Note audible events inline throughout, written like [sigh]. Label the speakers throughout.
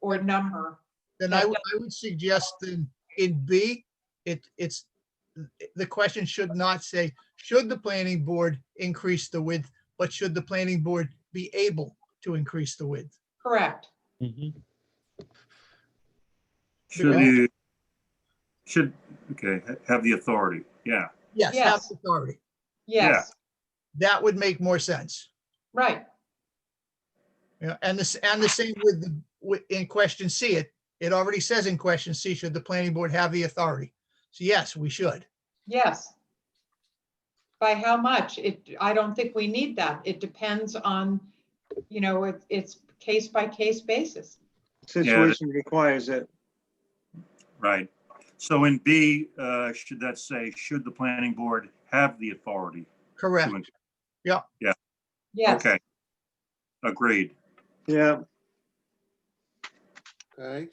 Speaker 1: or number.
Speaker 2: Then I, would- I would suggest in, in B, it, it's, the question should not say, should the planning board increase the width? But should the planning board be able to increase the width?
Speaker 1: Correct.
Speaker 3: Should
Speaker 2: Okay.
Speaker 3: you, should, okay, ha- have the authority, yeah.
Speaker 2: Yes, have
Speaker 1: Yes.
Speaker 2: authority.
Speaker 1: Yes,
Speaker 2: That would make more sense.
Speaker 1: right.
Speaker 2: Yeah, and this, and the same with, the with, in question C, it, it already says in question C, should the planning board have the authority? So yes, we should.
Speaker 1: Yes. By how much? It, I don't think we need that. It depends on, you know, it- it's case by case basis.
Speaker 4: Situation requires it.
Speaker 3: Right. So in B, uh, should that say, should the planning board have the authority?
Speaker 2: Correct.
Speaker 3: to in-
Speaker 1: Yes,
Speaker 3: Okay. Agreed.
Speaker 4: Yeah,
Speaker 5: Okay,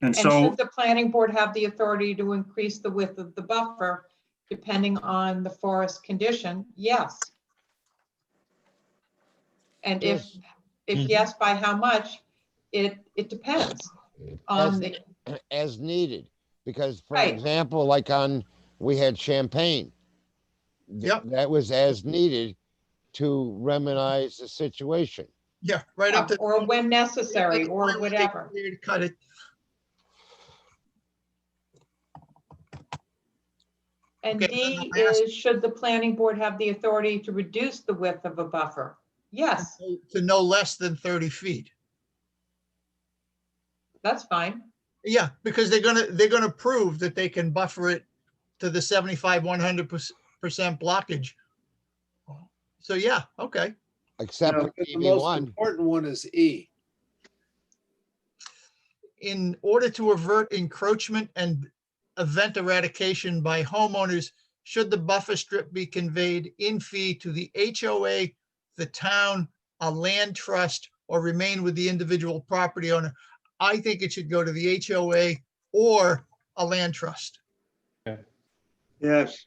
Speaker 3: And
Speaker 1: and should
Speaker 3: so,
Speaker 1: the planning board have the authority to increase the width of the buffer depending on the forest condition? Yes. And if,
Speaker 2: Yes.
Speaker 1: if
Speaker 6: Mhm.
Speaker 1: yes, by how much? It, it depends on the,
Speaker 6: as needed. Because for
Speaker 1: Right.
Speaker 6: example, like on, we had Champagne. Th-
Speaker 2: Yep.
Speaker 6: That was as needed to remedize the situation.
Speaker 2: Yeah, right up to.
Speaker 1: Uh, or when necessary, or
Speaker 2: Like, why would they
Speaker 1: whatever.
Speaker 2: clear to Cut it.
Speaker 1: And
Speaker 2: Okay,
Speaker 1: D
Speaker 2: I asked-
Speaker 1: is, should the planning board have the authority to reduce the width of a buffer? Yes,
Speaker 2: to no less than 30 feet.
Speaker 1: that's fine.
Speaker 2: Yeah, because they're gonna, they're gonna prove that they can buffer it to the 75, 100% blockage. So yeah, okay,
Speaker 6: Except
Speaker 5: now,
Speaker 6: for
Speaker 5: the
Speaker 6: DB
Speaker 5: most
Speaker 6: one,
Speaker 5: important one is E.
Speaker 2: in order to avert encroachment and event eradication by homeowners, should the buffer strip be conveyed in fee to the HOA, the town, a land trust, or remain with the individual property owner? I think it should go to the HOA or a land trust.
Speaker 4: yes,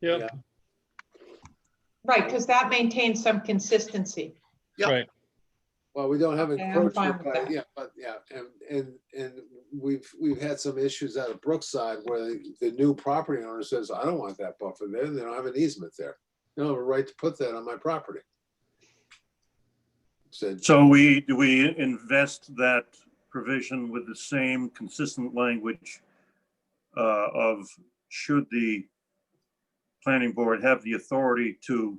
Speaker 5: Yeah.
Speaker 1: Right, because that maintains some consistency.
Speaker 5: Well, we don't have
Speaker 1: Okay, I'm fine
Speaker 5: encroachment,
Speaker 1: with
Speaker 5: but
Speaker 1: that.
Speaker 5: yeah, but yeah, and, and, and we've, we've had some issues out of Brookside where the, the new property owner says, I don't want that buffer there, they don't have an easement there. They don't have a right to put that on my property. Said,
Speaker 3: so we, do we invest that provision with the same consistent language uh, of should the planning board have the authority to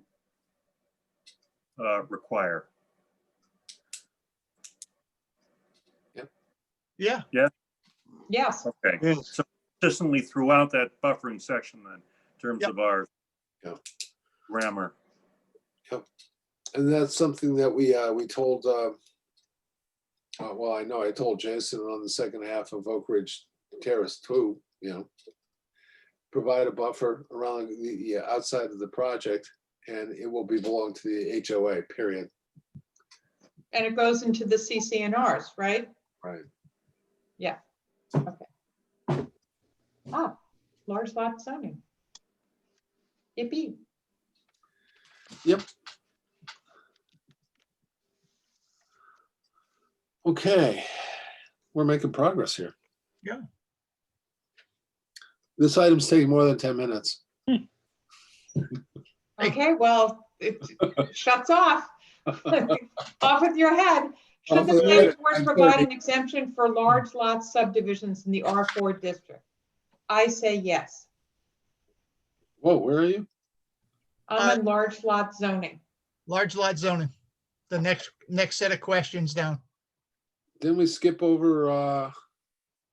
Speaker 3: uh, require?
Speaker 2: Yeah,
Speaker 1: Yes,
Speaker 3: Okay,
Speaker 4: yes.
Speaker 3: so consistently throughout that buffering section then, in terms
Speaker 2: Yep.
Speaker 3: of our
Speaker 5: Yeah.
Speaker 3: grammar.
Speaker 5: and that's something that we, uh, we told, uh, uh, well, I know I told Jason on the second half of Oak Ridge Terrace too, you know. Provide a buffer around the, yeah, outside of the project and it will be belong to the HOA, period.
Speaker 1: and it goes into the CCNRs, right?
Speaker 5: Right.
Speaker 1: Yeah, okay. Ah, large lot zoning. Yippee.
Speaker 5: Okay, we're making progress here.
Speaker 2: Yeah.
Speaker 5: This item's taking more than ten minutes.
Speaker 2: Hey.
Speaker 1: Okay, well, it shuts off. [laughs] Off with your head. Should
Speaker 5: Off
Speaker 1: the
Speaker 5: with your
Speaker 1: planning
Speaker 5: head.
Speaker 1: board
Speaker 5: I'm
Speaker 1: provide
Speaker 5: sorry.
Speaker 1: an exemption for large lot subdivisions in the R4 district? I say yes.
Speaker 5: Whoa, where are you?
Speaker 1: I'm in large lot zoning.
Speaker 2: Large lot zoning, the next, next set of questions down.
Speaker 5: Didn't we skip over uh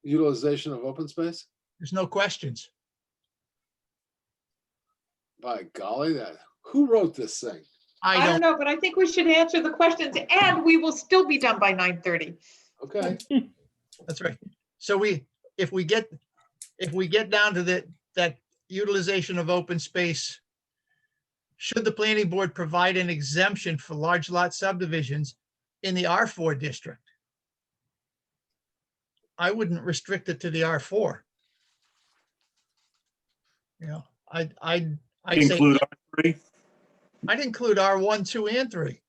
Speaker 5: utilization of open space?
Speaker 2: There's no questions.
Speaker 5: By golly, that, who wrote this thing?
Speaker 2: I
Speaker 1: I don't
Speaker 2: don't,
Speaker 1: know, but I think we should answer the questions and we will still be done by 9:30.
Speaker 5: Okay,
Speaker 2: that's right. So we, if we get, if we get down to the, that utilization of open space, should the planning board provide an exemption for large lot subdivisions in the R4 district? I wouldn't restrict it to the R4. You know, I, I, I say,
Speaker 3: Include R three?
Speaker 2: I'd include R1, 2, and 3.